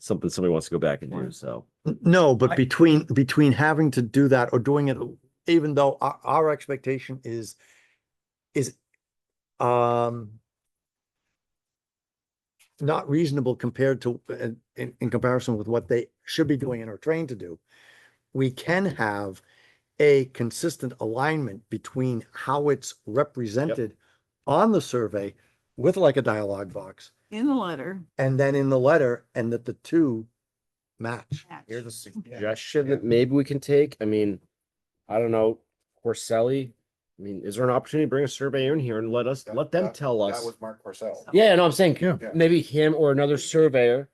something somebody wants to go back and do, so. No, but I- between, between having to do that or doing it, even though our, our expectation is, is, um, not reasonable compared to, in, in in comparison with what they should be doing and are trained to do, we can have a consistent alignment between how it's represented on the survey with like a dialogue box in the letter. and then in the letter and that the two match. attached. Here's a suggestion. suggestion that maybe we can take? I mean, I don't know, Corselli. I mean, is there an opportunity to bring a surveyor in here and let us, That- let them tell That us? was Mark Porcel. Yeah, no, I'm saying, Yeah. Yeah. maybe him or another surveyor.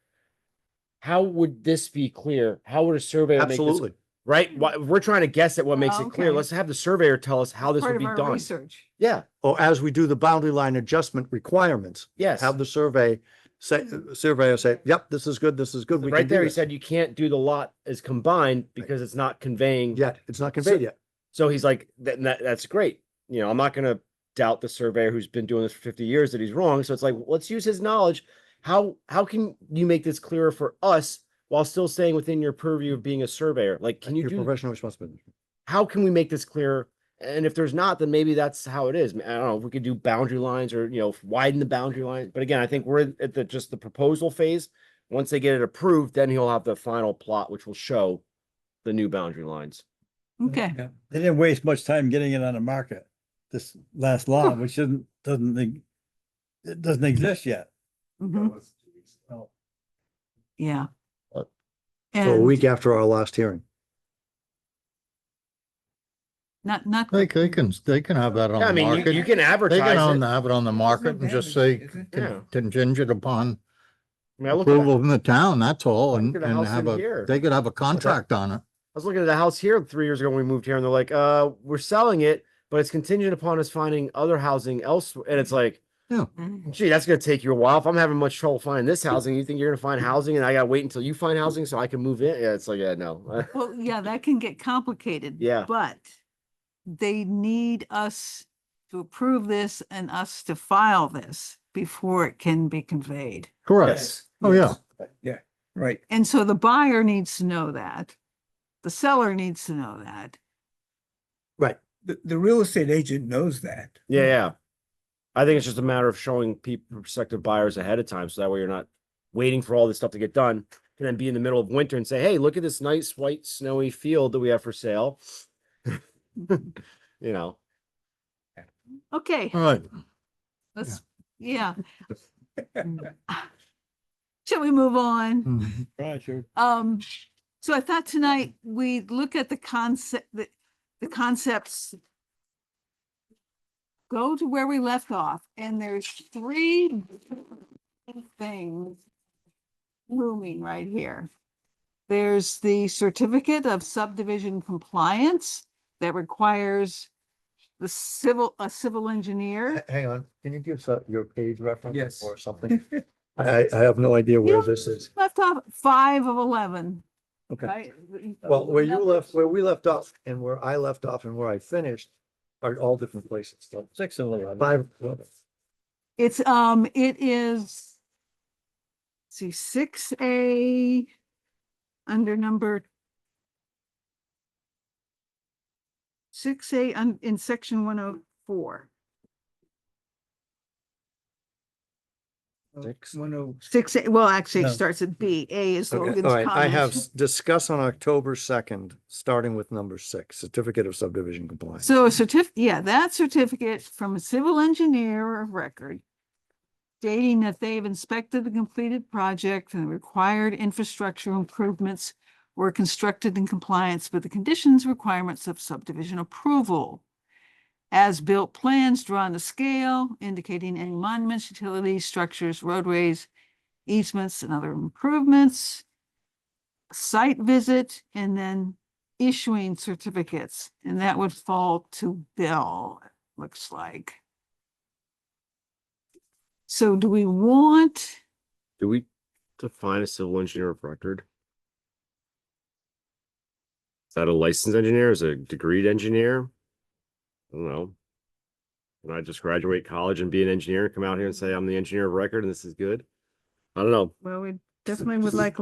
How would this be clear? How would a surveyor make this, Absolutely. right? Why, we're trying to guess at what makes it clear. Okay. Let's have the surveyor tell us how this Part would of be our done. Research. Yeah, or as we do the boundary line adjustment requirements, yes. have the survey say, surveyor say, yep, this is good, this is good. we can Right do there, he this." said you can't do the lot as combined because it's not conveying. Yet, it's not conveyed yet. So he's like, that, that that's great. You know, I'm not gonna doubt the surveyor who's been doing this for 50 years that he's wrong. So it's like, let's use his knowledge. How how can you make this clearer for us while still staying within your purview of being a surveyor? Like, can you Your do Professional responsibility. how can we make this clearer? And if there's not, then maybe that's how it is. I don't know if we could do boundary lines or you know widen the boundary lines. But again, I think we're at the just the proposal phase. Once they get it approved, then he'll have the final plot, which will show the new boundary lines. Okay, Yeah. They didn't waste much time getting it on the market, this last law, which isn't, doesn't, e- it doesn't exist yet. mhm, yeah. But- So a And week after our last hearing. not, not, They, they can, they can have that on Yeah, I the mean, you, you market. can They can advertise own- it. have it on the market and just say Isn't con- Yeah. contingent upon I mean, I looked at, I approval from the town, that's all, and, Look at a and house have in a, here. they could have a contract on it. was looking at a house here three years ago when we moved here and they're like, uh, we're selling it, but it's contingent upon us finding other housing elsewhere. And it's like, Mm, gee, that's gonna take you a while. If I'm having much trouble finding this housing, you think you're gonna find housing and I gotta wait until you find housing so I can move in? Yeah, it's like, yeah, no. well, yeah, that can get complicated. Yeah. But they need us to approve this and us to file this before it can be conveyed. Correct. Oh, yeah. Right. And so the buyer needs to know that. The seller needs to know that. the, the real estate agent knows that. Yeah, yeah. I think it's just a matter of showing people prospective buyers ahead of time, so that way you're not waiting for all this stuff to get done. And then be in the middle of winter and say, hey, look at this nice white snowy field that we have for sale. You know, Okay, All right. let's, yeah. Shall we move on? Hmm. Mhm. Roger. Um, so I thought tonight we look at the concept, the, the concepts. Go to where we left off and there's three things looming right here. There's the certificate of subdivision compliance that requires the civil, a civil engineer. Hang on, can you give us your page reference? Yes. Or something? I, I have no idea where this is. Left off five of eleven, Okay. right? Well, where you Numbers. left, where we left off and where I left off and where I finished are all different places. So Six of eleven. Five, It's, um, it is. See, six A. Under number. Six A un- in section one oh four. six. One oh, Six A, well, actually, it No. starts at B. A is Okay, Logan's all right, I have comment. s- discuss on October second, starting with number six, certificate of subdivision compliance. So a certif, yeah, that certificate from a civil engineer of record. Stating that they've inspected the completed project and the required infrastructure improvements were constructed in compliance with the conditions requirements of subdivision approval. As-built plans drawn to scale indicating any monuments, utilities, structures, roadways, easements and other improvements. Site visit and then issuing certificates, and that would fall to Bill, it looks like. So do we want, do we define a civil engineer of record? Is that a licensed engineer? Is it a degreed engineer? I don't know. Can I just graduate college and be an engineer, and come out here and say I'm the engineer of record and this is good? I don't know. well, we definitely would like